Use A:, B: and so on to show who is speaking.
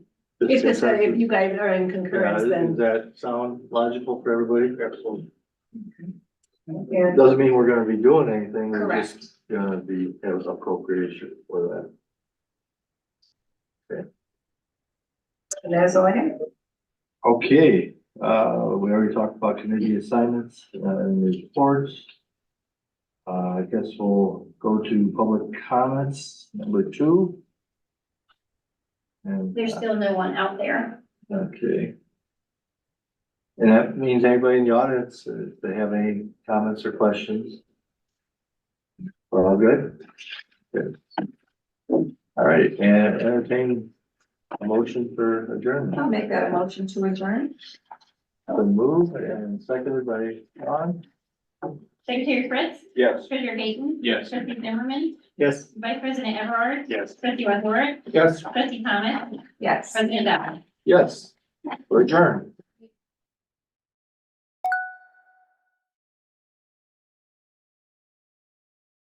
A: If it's, if
B: consensus?
A: you guys are in concurrence,
B: Yeah, Does
A: then,
B: that sound logical for everybody?
A: yeah,
B: Doesn't mean we're gonna be doing anything, we're
C: Correct.
B: just gonna be, have appropriation for that.
A: and that's all I have.
B: Okay, uh, we already talked about committee assignments uh, and reports. Uh, I guess we'll go to public comments, number two. And,
C: There's still no one out there.
B: okay. And that means anybody in the audience, uh, if they have any comments or questions? We're all good? Good. All right, and entertain a motion for adjournment.
A: I'll make that a motion to adjourn.
B: The move and seconded by John?
C: Secretary Fritz,
B: Yes.
C: Treasurer Gaten,
B: Yes.
C: Trustee Zimmerman,
B: Yes.
C: Vice President Everard,
B: Yes.
C: Trustee Wazorek,
B: Yes.
C: Trustee Thomas,
A: Yes.
C: President Dodd.
B: Yes. We're adjourned.